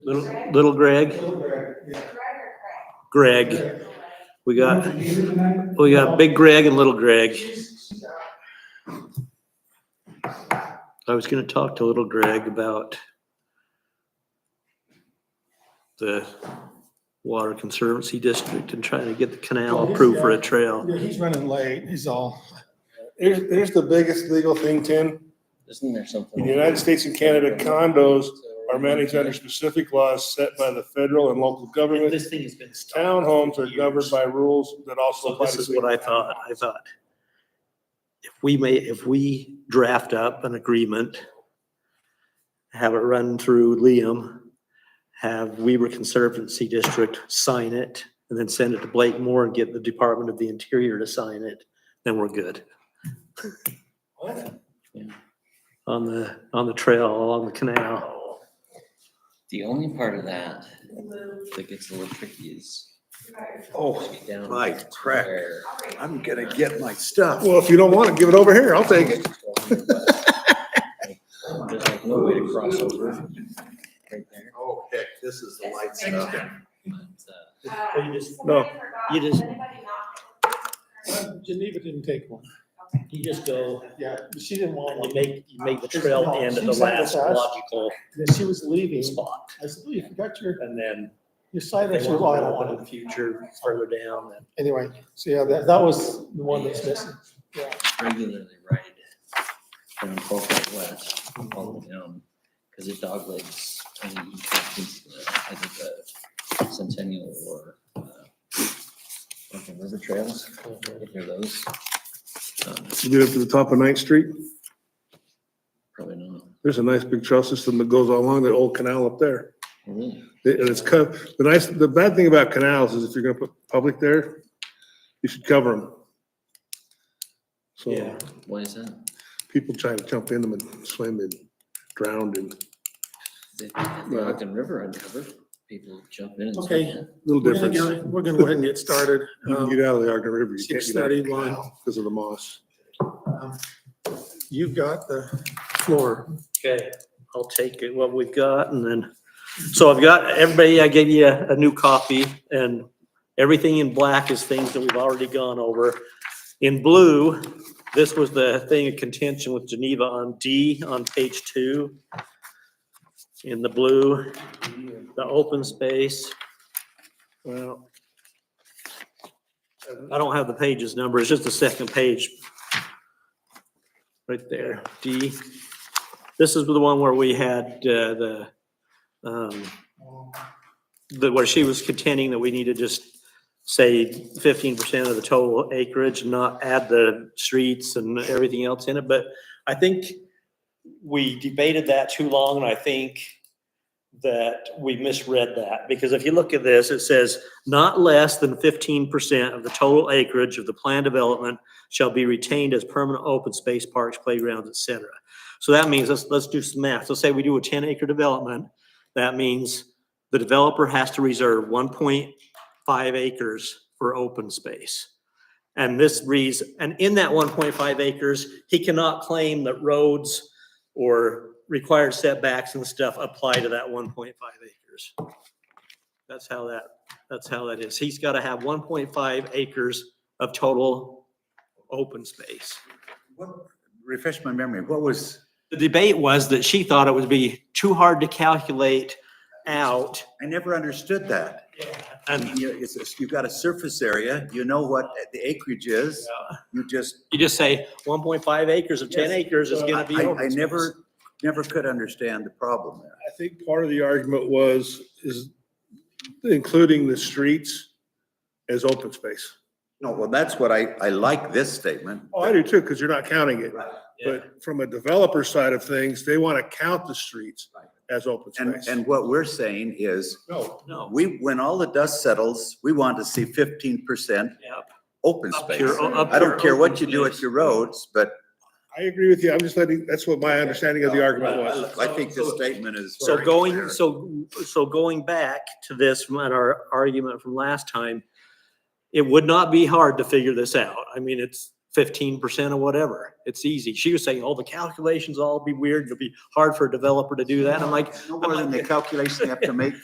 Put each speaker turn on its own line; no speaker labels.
Little, little Greg, Greg, we got, we got Big Greg and Little Greg. I was gonna talk to Little Greg about the Water Conservancy District and trying to get the canal approved for a trail.
Yeah, he's running late, he's all. Here's, here's the biggest legal thing, Tim.
Isn't there something?
In the United States and Canada, condos are managed under specific laws set by the federal and local government.
This thing has been. stuck
Townhomes are
for
governed
years.
by rules that also
So
apply to.
this is what I thought, I thought. If we may, if we draft up an agreement, have it run through Liam, have Weaver Conservancy District sign it, and then send it to Blake Moore and get the Department of the Interior to sign it, then we're good. On the, on the trail, along the canal.
The only part of that that gets a little tricky is.
Oh,
get down
my
to
crack.
where-
I'm gonna get my stuff.
Well, if you don't want it, give it over here, I'll take it.
There's like no way to cross over right there.
Oh, heck, this is the light stuff.
But, uh,
you just-
No.
you just-
Geneva didn't take one.
You just go,
Yeah, she didn't want
and
one.
you make, you make the trail end at the last logical
Then she was leaving.
spot.
I said, oh, you forgot your,
And then
your side. I
They
said,
want
well, I
to
don't
know
want
one in
it.
the future, further down, and
Anyway, so yeah, that, that was the one that's missing.
regularly ride down Colquitt West, all the way down, because it doglegs tiny sections of the- I think the Centennial or uh, Lincoln River Trails, if you're those. um,
You get up to the top of Ninth Street,
Probably not.
there's a nice big trail system that goes along that old canal up there.
Really?
It- And it's cut, the nice, the bad thing about canals is if you're gonna put public there, you should cover them. So
Yeah.
Why is that?
people try to jump in them and swim and drown and
They got the Ogden River uncovered, people jump in and
Okay.
swim
a little
We're gonna
difference.
go- we're gonna go ahead and get started.
You can
Um,
get out of the Ogden River, you can't get out of the
6:31.
canal because of the moss.
You've got the floor.
Okay, I'll take it, what we've got and then, so I've got, everybody, I gave you a, a new copy and everything in black is things that we've already gone over. In blue, this was the thing of contention with Geneva on D on page two. In the blue, the open space. Well, I don't have the pages number, it's just the second page. Right there, D. This is the one where we had uh, the, um, the, where she was contending that we need to just say fifteen percent of the total acreage, not add the streets and everything else in it, but I think we debated that too long, and I think that we misread that, because if you look at this, it says, not less than fifteen percent of the total acreage of the planned development shall be retained as permanent open space, parks, playgrounds, et cetera. So that means, let's, let's do some math. So say we do a ten acre development, that means the developer has to reserve one point five acres for open space. And this reads, and in that one point five acres, he cannot claim that roads or required setbacks and stuff apply to that one point five acres. That's how that, that's how that is. He's got to have one point five acres of total open space.
What- Refresh my memory, what was,
The debate was that she thought it would be too hard to calculate out
I never understood that. I
and
mean, you- it's- it's- You've got a surface area, you know what the acreage is, you just,
you just say one point five acres of ten acres is
I,
gonna be.
I
open space.
never, never could understand the problem there.
I think part of the argument was, is including the streets as open space.
No, well, that's what I, I like this statement.
Oh, I do too, because you're not counting it.
Right.
But from a developer side of things, they want to count the streets as open
And,
space.
and what we're saying is,
No,
No.
we, when all the dust settles, we want to see fifteen percent
Yep.
open
Up
space.
your- up
I
your
don't care
open
what you do
space.
at your roads, but
I agree with you. I'm just letting, that's what my understanding of the argument was.
I think this statement is.
So
very
going,
clear.
so, so going back to this from our argument from last time, it would not be hard to figure this out. I mean, it's fifteen percent or whatever. It's easy. She was saying, oh, the calculations all be weird. It'll be hard for a developer to do that. I'm like,
No more than the calculation you have to make